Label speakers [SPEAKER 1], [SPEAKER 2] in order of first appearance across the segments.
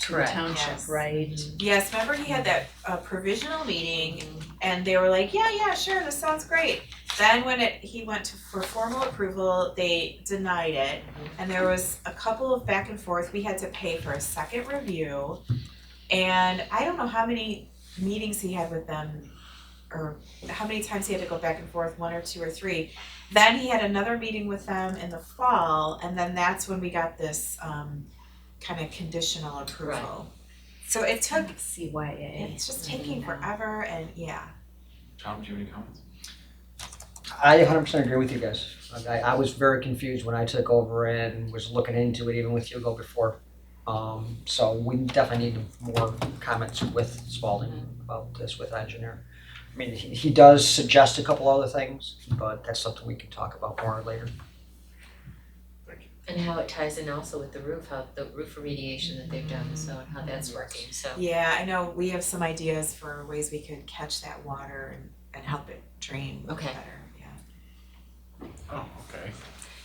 [SPEAKER 1] to the
[SPEAKER 2] Correct.
[SPEAKER 1] township,
[SPEAKER 3] Yes.
[SPEAKER 1] right?
[SPEAKER 3] Yes, remember he had that uh provisional meeting and they were like, yeah, yeah, sure, this sounds great. Then when it, he went to, for formal approval, they denied it and there was a couple of back and forth, we had to pay for a second review. And I don't know how many meetings he had with them or how many times he had to go back and forth, one or two or three. Then he had another meeting with them in the fall and then that's when we got this um kind of conditional approval. So it took
[SPEAKER 1] CYA.
[SPEAKER 3] it's just taking forever and yeah.
[SPEAKER 4] Tom, do you have any comments?
[SPEAKER 5] I 100% agree with you guys. Like, I, I was very confused when I took over and was looking into it even with Hugo before. Um, so we definitely need more comments with Spalding about this with engineer. I mean, he, he does suggest a couple other things, but that's something we can talk about more later.
[SPEAKER 2] And how it ties in also with the roof, how the roof remediation that they've done, so and how that's working, so.
[SPEAKER 3] Yeah, I know we have some ideas for ways we could catch that water and, and help it drain better,
[SPEAKER 2] Okay.
[SPEAKER 3] yeah.
[SPEAKER 4] Oh, okay.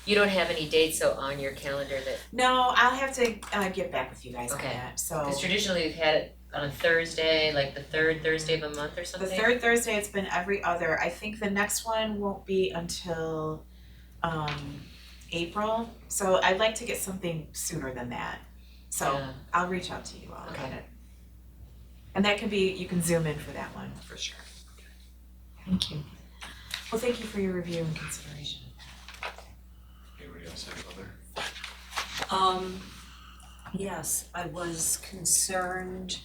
[SPEAKER 2] You don't have any dates though on your calendar that,
[SPEAKER 3] No, I'll have to uh get back with you guys on
[SPEAKER 2] Okay.
[SPEAKER 3] that, so
[SPEAKER 2] because traditionally we've had it on a Thursday, like the third Thursday of a month or
[SPEAKER 3] the
[SPEAKER 2] something.
[SPEAKER 3] third Thursday, it's been every other, I think the next one won't be until um April, so I'd like to get something sooner than that. So
[SPEAKER 2] Yeah.
[SPEAKER 3] I'll reach out to you all about
[SPEAKER 2] Okay.
[SPEAKER 3] it. And that can be, you can zoom in for that one for sure.
[SPEAKER 1] Thank you.
[SPEAKER 3] Well, thank you for your review and consideration.
[SPEAKER 4] Anybody else have other?
[SPEAKER 1] Um, yes, I was concerned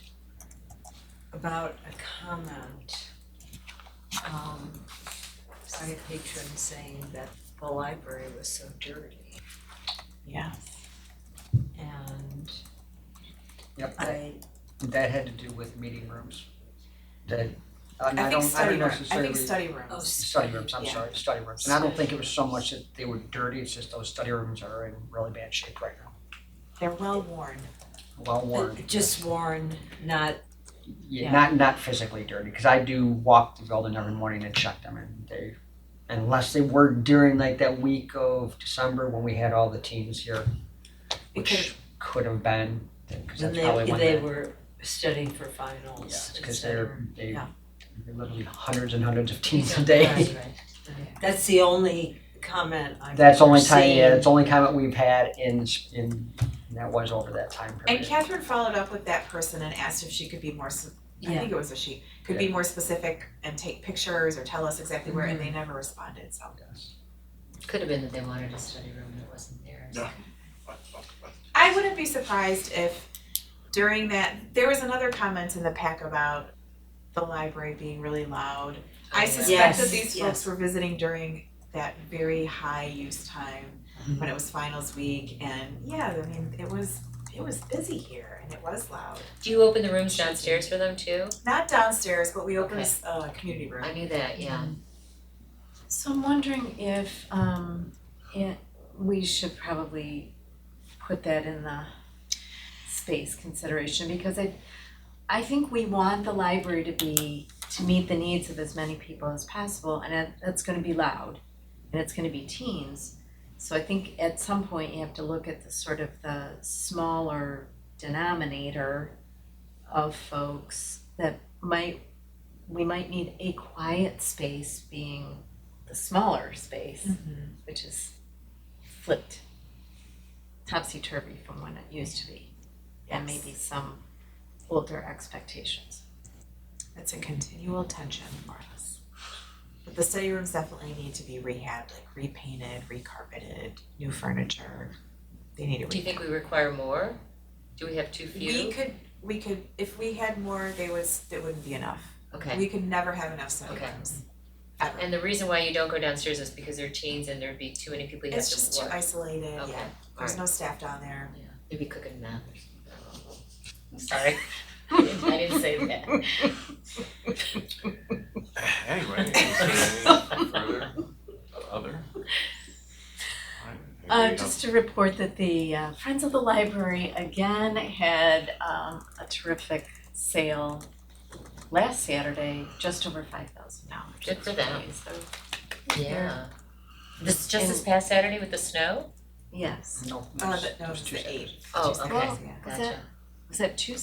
[SPEAKER 1] about a comment um by a patron saying that the library was so dirty
[SPEAKER 3] Yeah.
[SPEAKER 1] and
[SPEAKER 5] Yep. that-
[SPEAKER 1] I
[SPEAKER 5] That had to do with meeting rooms. That, uh, and
[SPEAKER 3] I think
[SPEAKER 5] I don't, I
[SPEAKER 3] study
[SPEAKER 5] don't
[SPEAKER 3] room, I
[SPEAKER 5] necessarily.
[SPEAKER 3] think study
[SPEAKER 1] oh
[SPEAKER 3] rooms.
[SPEAKER 5] Study rooms, I'm
[SPEAKER 3] Yeah.
[SPEAKER 5] sorry, study rooms. And I don't
[SPEAKER 2] Study
[SPEAKER 5] think it was so much that they were dirty, it's just those study rooms are in really bad shape right now.
[SPEAKER 3] They're well worn.
[SPEAKER 5] Well worn.
[SPEAKER 1] Uh, just worn, not Yeah.
[SPEAKER 5] Yeah, not not physically dirty, because I do walk the building every morning and check them, and they, unless they were during like that week of December when we had all the teams here,
[SPEAKER 3] It
[SPEAKER 5] which could have been, because
[SPEAKER 1] and
[SPEAKER 5] that's probably
[SPEAKER 1] they
[SPEAKER 5] when
[SPEAKER 1] they
[SPEAKER 5] that,
[SPEAKER 1] were studying for
[SPEAKER 5] yeah,
[SPEAKER 1] finals, et
[SPEAKER 5] because
[SPEAKER 1] cetera.
[SPEAKER 5] they're, they,
[SPEAKER 1] yeah.
[SPEAKER 5] they're literally hundreds and hundreds of teams a
[SPEAKER 1] Right,
[SPEAKER 5] day.
[SPEAKER 1] right. That's the only comment I've
[SPEAKER 5] That's
[SPEAKER 1] ever
[SPEAKER 5] only time, yeah,
[SPEAKER 1] seen.
[SPEAKER 5] it's only comment we've had in, s- in, and that was over that time
[SPEAKER 3] And
[SPEAKER 5] period.
[SPEAKER 3] Catherine followed up with that person and asked if she could be more, s- I
[SPEAKER 1] Yeah.
[SPEAKER 3] think it was a she, could be more specific and take pictures or tell us exactly where, and
[SPEAKER 1] Mm-hmm.
[SPEAKER 3] they never responded, so.
[SPEAKER 5] Yes.
[SPEAKER 2] Could have been that they wanted a study room that wasn't theirs.
[SPEAKER 4] Yeah.
[SPEAKER 3] I wouldn't be surprised if during that, there was another comment in the pack about the library being really loud.
[SPEAKER 2] Oh,
[SPEAKER 3] I suspect that
[SPEAKER 1] Oh, Yes,
[SPEAKER 3] these folks
[SPEAKER 1] yes.
[SPEAKER 3] were visiting during that very high use time
[SPEAKER 1] Mm-hmm.
[SPEAKER 3] when it was finals week and yeah, I mean, it was, it was busy here and it was loud.
[SPEAKER 2] Do you open the rooms downstairs for them too?
[SPEAKER 3] Not downstairs, but we opened
[SPEAKER 2] Okay.
[SPEAKER 3] a uh, community room.
[SPEAKER 2] I knew that, yeah.
[SPEAKER 6] So I'm wondering if um it, we should probably put that in the space consideration because I I think we want the library to be to meet the needs of as many people as possible and that that's gonna be loud and it's gonna be teens. So I think at some point you have to look at the sort of the smaller denominator of folks that might we might need a quiet space being the smaller space,
[SPEAKER 3] Mm. Mm-hmm.
[SPEAKER 6] which is flipped topsy turvy from when it used to be, and
[SPEAKER 3] Yes.
[SPEAKER 6] maybe some older expectations.
[SPEAKER 3] It's a continual tension for us. But the study rooms definitely need to be rehabbed, like repainted, recarpeted, new furniture. They need to.
[SPEAKER 2] Do you think we require more? Do we have too few?
[SPEAKER 3] We could, we could, if we had more, they was, it wouldn't be enough.
[SPEAKER 2] Okay,
[SPEAKER 3] We could never have enough study
[SPEAKER 2] Okay.
[SPEAKER 3] rooms. Ever.
[SPEAKER 2] and the reason why you don't go downstairs is because they're teens and there'd be too many people you have
[SPEAKER 3] It's
[SPEAKER 2] to
[SPEAKER 3] just too
[SPEAKER 2] work.
[SPEAKER 3] isolated,
[SPEAKER 2] Okay,
[SPEAKER 3] yeah. There's no staff down there.
[SPEAKER 2] Yeah, they'd be cooking meth or something. I'm sorry, I didn't, I didn't say that.
[SPEAKER 4] Anyway, is there any further, other? Alright,
[SPEAKER 6] Uh,
[SPEAKER 4] anybody else?
[SPEAKER 6] just to report that the uh, Friends of the Library again had um, a terrific sale last Saturday, just over five thousand dollars.
[SPEAKER 2] Good for them.
[SPEAKER 6] So,
[SPEAKER 2] Yeah. This, just this past Saturday with the snow?
[SPEAKER 6] yes.
[SPEAKER 5] No,
[SPEAKER 3] Uh,
[SPEAKER 5] there's-
[SPEAKER 3] but no,
[SPEAKER 1] uh,
[SPEAKER 5] there's
[SPEAKER 3] it's
[SPEAKER 5] two
[SPEAKER 3] the
[SPEAKER 5] seconds.
[SPEAKER 3] eighth.
[SPEAKER 2] Oh,
[SPEAKER 3] Tuesday,
[SPEAKER 2] okay.
[SPEAKER 3] yeah.
[SPEAKER 6] Is
[SPEAKER 2] Gotcha.
[SPEAKER 6] was that Tuesday?